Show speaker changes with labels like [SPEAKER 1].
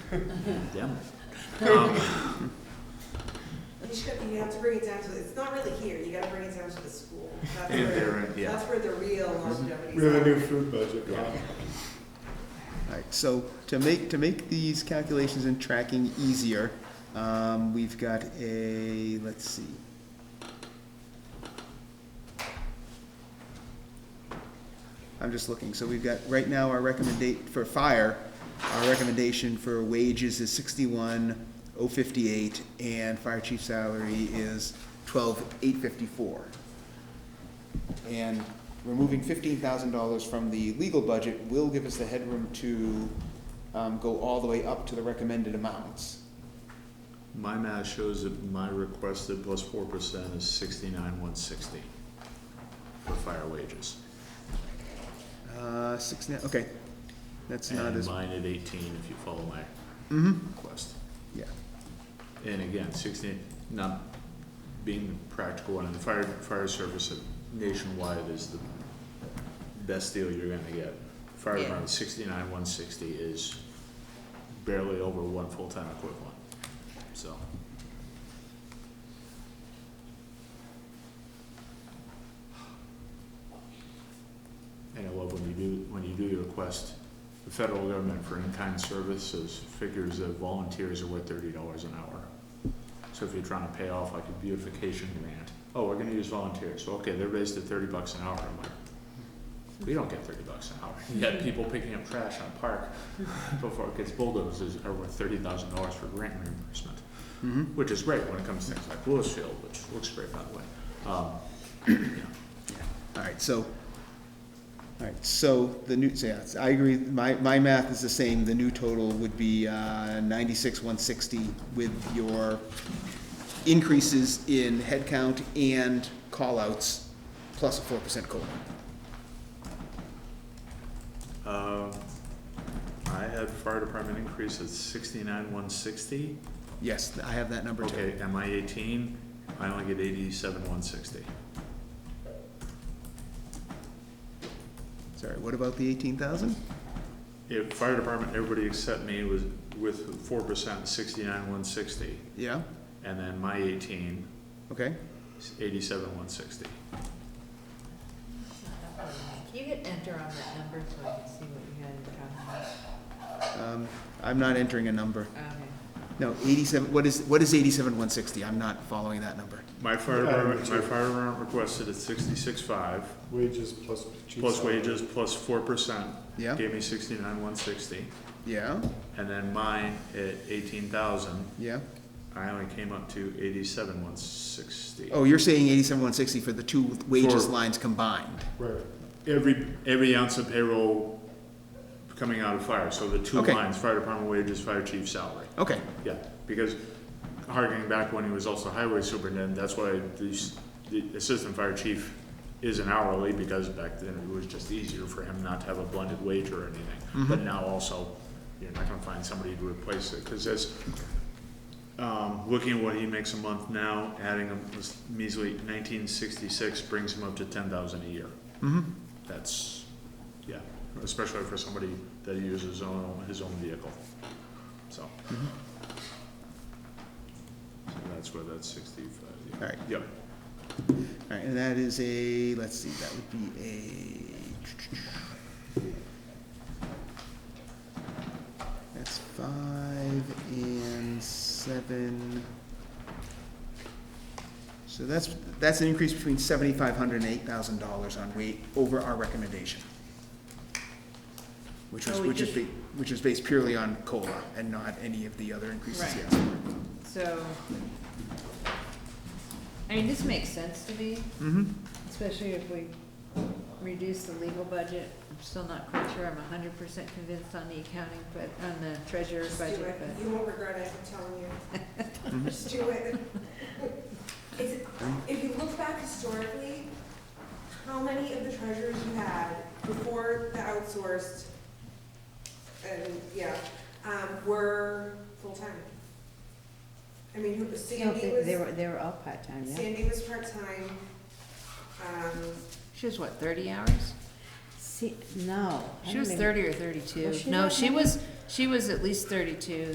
[SPEAKER 1] Damn.
[SPEAKER 2] You should, you have to bring it down to, it's not really here, you gotta bring it down to the school. That's
[SPEAKER 1] And
[SPEAKER 2] where-
[SPEAKER 1] there, and- yeah.
[SPEAKER 2] That's where the real longevity
[SPEAKER 3] We have a new
[SPEAKER 2] is.
[SPEAKER 3] food budget.
[SPEAKER 4] All right, so to make, to make these calculations and tracking easier, um, we've got a, let's see. I'm just looking, so we've got, right now, our recommendate, for fire, our recommendation for wages is sixty-one oh fifty-eight, and fire chief salary is twelve eight fifty-four. And removing fifteen thousand dollars from the legal budget will give us the headroom to, um, go all the way up to the recommended amounts.
[SPEAKER 1] My math shows that my requested plus four percent is sixty-nine, one sixty for fire wages.
[SPEAKER 4] Uh, six, na- okay, that's not
[SPEAKER 1] And
[SPEAKER 4] as,
[SPEAKER 1] mine at eighteen, if you follow my
[SPEAKER 4] hmm
[SPEAKER 1] request.
[SPEAKER 4] yeah,
[SPEAKER 1] And again, sixteen, not being the practical one, and the fire, fire service nationwide is the best deal you're gonna get. Fire
[SPEAKER 5] Yeah.
[SPEAKER 1] department, sixty-nine, one sixty is barely over one full-time equivalent, so. And I love when you do, when you do your request, the federal government for in-kind services figures that volunteers are worth thirty dollars an hour. So if you're trying to pay off like a beautification grant, oh, we're gonna use volunteers, okay, they're raised at thirty bucks an hour, I'm like, we don't get thirty bucks an hour, you got people picking up trash on a park before it gets bulldozed is, are worth thirty thousand dollars for grant reimbursement
[SPEAKER 4] mm-hmm.
[SPEAKER 1] which is great when it comes to things like Louisville, which looks great, by the way. Um, you know,
[SPEAKER 4] All right, so, all right, so the new, so yeah, I agree, my, my math is the same, the new total would be, uh, ninety-six, one sixty with your increases in headcount and callouts, plus a four percent COLA.
[SPEAKER 1] Um, I had fire department increase at sixty-nine, one sixty.
[SPEAKER 4] Yes, I have that number too.
[SPEAKER 1] Okay, am I eighteen? I only get eighty-seven, one sixty.
[SPEAKER 4] Sorry, what about the eighteen thousand?
[SPEAKER 1] If fire department, everybody except me was with four percent, sixty-nine, one sixty.
[SPEAKER 4] Yeah,
[SPEAKER 1] And then my eighteen
[SPEAKER 4] okay,
[SPEAKER 1] is eighty-seven, one sixty.
[SPEAKER 5] Can you hit enter on that number so I can see what you had in front
[SPEAKER 4] um, I'm not entering a number.
[SPEAKER 5] of me?
[SPEAKER 4] No, eighty-seven, what is, what is eighty-seven, one sixty? I'm not following that number.
[SPEAKER 1] My fire
[SPEAKER 3] Yeah, I
[SPEAKER 1] department,
[SPEAKER 3] agree
[SPEAKER 1] my
[SPEAKER 3] too.
[SPEAKER 1] fire department requested at sixty-six-five,
[SPEAKER 3] Wages plus. chief's
[SPEAKER 1] plus
[SPEAKER 3] salary.
[SPEAKER 1] wages, plus four percent.
[SPEAKER 4] Yeah,
[SPEAKER 1] Gave me sixty-nine, one sixty,
[SPEAKER 4] yeah,
[SPEAKER 1] and then mine at eighteen thousand,
[SPEAKER 4] yeah.
[SPEAKER 1] I only came up to eighty-seven, one sixty.
[SPEAKER 4] Oh, you're saying eighty-seven, one sixty for the two wages
[SPEAKER 1] For-
[SPEAKER 4] lines combined?
[SPEAKER 3] Right.
[SPEAKER 1] Every, every ounce of payroll coming out of fire, so the two
[SPEAKER 4] Okay.
[SPEAKER 1] lines, fire department wages, fire chief salary.
[SPEAKER 4] Okay,
[SPEAKER 1] Yeah, because harking back when he was also highway superintendent, that's why the, s- the assistant fire chief is an hourly, because back then it was just easier for him not to have a blended wage or anything. But now also, you're not gonna find somebody to replace it, cause as, um, looking at what he makes a month now, adding a this measly nineteen sixty-six brings him up to ten thousand a year.
[SPEAKER 4] mm-hmm,
[SPEAKER 1] That's, yeah, especially for somebody that uses his own, his own vehicle, so. So that's where that sixty-five, yeah.
[SPEAKER 4] Alright.
[SPEAKER 1] Yep,
[SPEAKER 4] all right, and that is a, let's see, that would be a. That's five and seven. So that's, that's an increase between seventy-five hundred and eight thousand dollars on weight over our recommendation. Which was,
[SPEAKER 5] So we
[SPEAKER 4] which is,
[SPEAKER 5] just-
[SPEAKER 4] ba- which is based purely on COLA and not any of the other increases
[SPEAKER 5] Right.
[SPEAKER 4] yet.
[SPEAKER 5] So, I mean, this makes sense to me,
[SPEAKER 4] Mm-hmm,
[SPEAKER 5] especially if we reduce the legal budget. I'm still not quite sure I'm hundred percent convinced on the accounting, but, on the treasurer's
[SPEAKER 2] Just do
[SPEAKER 5] budget,
[SPEAKER 2] it.
[SPEAKER 5] but.
[SPEAKER 2] You won't regret it, I'm telling you.
[SPEAKER 1] Mm-hmm.
[SPEAKER 2] Just do it. It's- If you look back historically, how many of the treasures you had before the outsourced, and, yeah, um, were full-time? I mean, who-
[SPEAKER 5] No,
[SPEAKER 2] Sandy
[SPEAKER 5] they- They
[SPEAKER 2] was,
[SPEAKER 5] were, they were all part-time, yeah.
[SPEAKER 2] Sandy was part-time, um,
[SPEAKER 5] She was what, thirty hours?
[SPEAKER 6] See, no. I
[SPEAKER 5] She
[SPEAKER 6] don't
[SPEAKER 5] was
[SPEAKER 6] even-
[SPEAKER 5] thirty or
[SPEAKER 6] Was
[SPEAKER 5] thirty-two.
[SPEAKER 6] she
[SPEAKER 5] No,
[SPEAKER 6] not
[SPEAKER 5] she
[SPEAKER 6] ninety?
[SPEAKER 5] was, she was at least thirty-two.